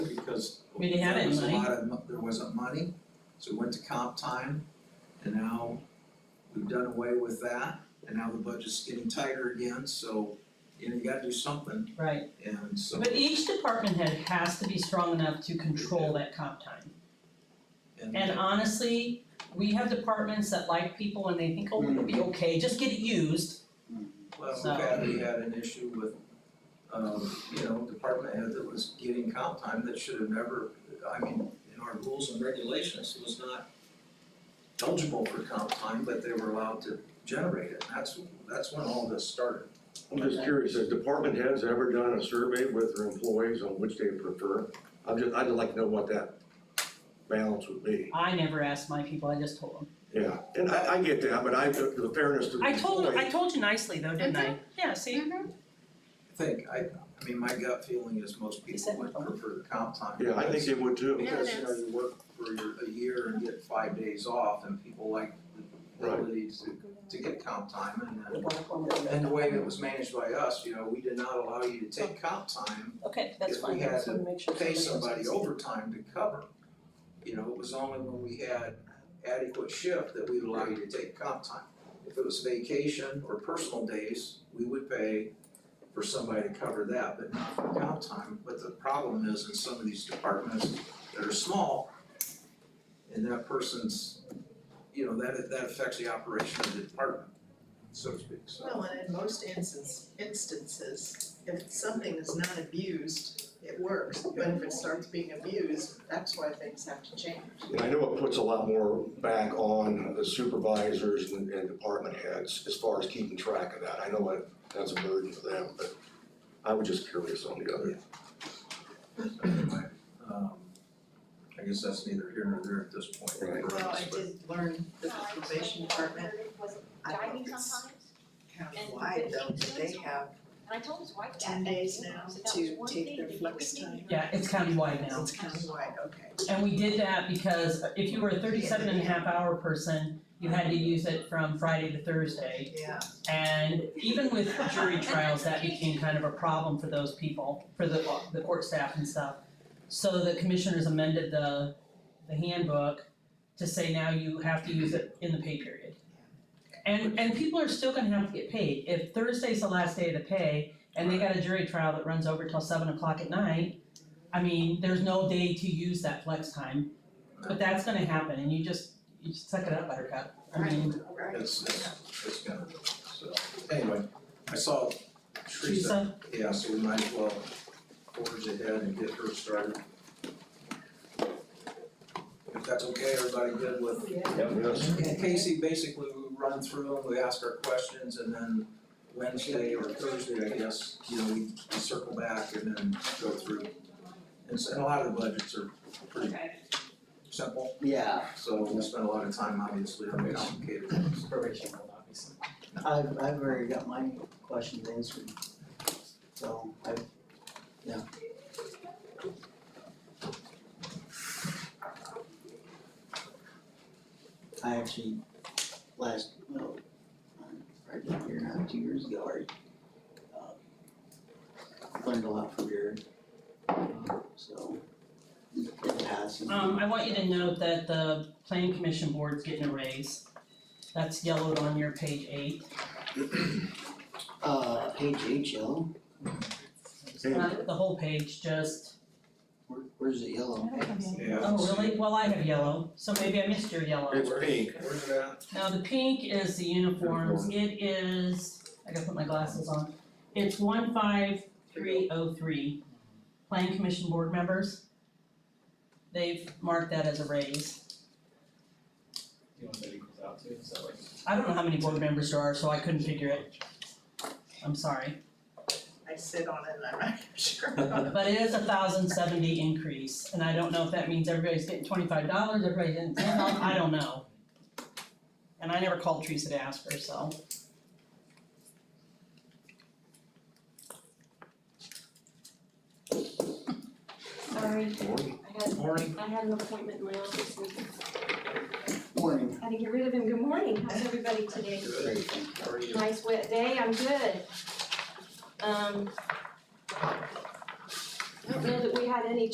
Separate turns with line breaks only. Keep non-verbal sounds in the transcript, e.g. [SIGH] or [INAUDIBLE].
We didn't have
There
any
was a
money.
lot of, mo- there wasn't money, so we went to comp time, and now we've done away with that, and now the budget's getting tighter again, so, you know, you gotta do something,
Right,
and so,
but each department head has to be strong enough to control that comp time. And um,
and,
honestly, we have departments that like people and they think, oh, it'll
Mm-hmm.
be okay, just get it used.
well,
So-
we had, we had an issue with, um, you know, department head that was getting comp time that should have never, I mean, in our rules and regulations, was not eligible for comp time, but they were allowed to generate it, that's, that's when all this started.
I'm just curious, has department heads ever done a survey with their employees on which they prefer? I'm just, I'd like to know what that balance would be.
I never asked my people, I just told them.
Yeah, and I, I get that, but I, the the fairness to the
I told,
employee.
I told you nicely though, didn't I? Yeah, see,
I think, I, I mean, my gut feeling is most people
said
would
phone.
prefer comp time.
Yeah, I think they would too.
Yeah, it
Because, you know,
is.
you work for your, a year and get five days off, and people like the
Right.
ability to, to get comp time, and then, and the way it was managed by us, you know, we did not allow you to take comp time
okay,
if
that's
we
fine.
had
Just wanna make sure
pay
somebody
somebody
else-
overtime to cover. You know, it was only when we had adequate shift that we'd allow you to take comp time. If it was vacation or personal days, we would pay for somebody to cover that, but not for comp time. But the problem is in some of these departments that are small, and that person's, you know, that that affects the operation of the department, so to speak, so.
Well, and in most instances, instances, if something is not abused, it works, but if it starts being abused, that's why things have to change.
And I know it puts a lot more back on the supervisors and, and department heads as far as keeping track of that. I know that, that's a burden for them, but I was just curious on the other.
Anyway, um, I guess that's neither here nor there at this point.
Right.
Well, I did learn that the probation department, I don't know
Diving
if it's
sometimes,
countywide though, but they have
and I told his wife that.
ten
that,
days
you know,
now
so that was
to
one
take
thing
their
that you
flex
would need.
time.
Yeah, it's countywide now.
It's countywide, okay.
And we did that because if you were a 37 and a half hour person, you had to use it from Friday to Thursday.
Yeah,
And even with jury trials, that became kind of a problem for those people, for the the court staff and stuff. So the commissioners amended the the handbook to say now you have to use it in the pay period. And and people are still gonna have to get paid, if Thursday's the last day of the pay and they got a jury trial that runs over till seven o'clock at night, I mean, there's no day to use that flex time,
uh,
but that's gonna happen and you just, you just suck it up, Buttercup, I mean.
right.
It's, it's, it's gonna, so, anyway, I saw Teresa,
Teresa,
yeah, so we might as well forge ahead and get her started. If that's okay, everybody good with,
Yes,
and Casey, basically, we run through them, we ask our questions, and then Wednesday or Thursday, I guess, you know, we circle back and then go through. And so, and a lot of the budgets are pretty simple.
Yeah,
So we spent a lot of time, obviously, on the complicated ones.
Probation will not be sent.
I've, I've already got my questions answered. So I, I actually last, well, right down here now, two years ago, already uh, learned a lot from your, so it passed.
um, I want you to note that the planning commission board's getting a raise. That's yellowed on your page eight.
Uh, page eight, yellow,
Not the whole page, just,
Where, where's the yellow?
Yeah.
oh, really? Well, I have yellow, so maybe I missed your yellow.
it's pink.
Where's that?
Now, the pink is the uniforms. It is, I gotta put my glasses on. It's one five three oh three, planning commission board members. They've marked that as a raise.
Do you want that equals out to, so like.
I don't know how many board members there are, so I couldn't figure it. I'm sorry.
I sit on it and I'm not sure.
[LAUGHS]
But it is a thousand seventy increase, and I don't know if that means everybody's getting twenty-five dollars, everybody's getting ten dollars, I don't know. And I never called Teresa to ask her, so.
Sorry,
Morning.
I had,
Morning.
I had an appointment in my office and
Morning.
had to get rid of him. Good morning, how's everybody today?
Good. How are you?
Nice wet day, I'm good. Um. I don't know that we had any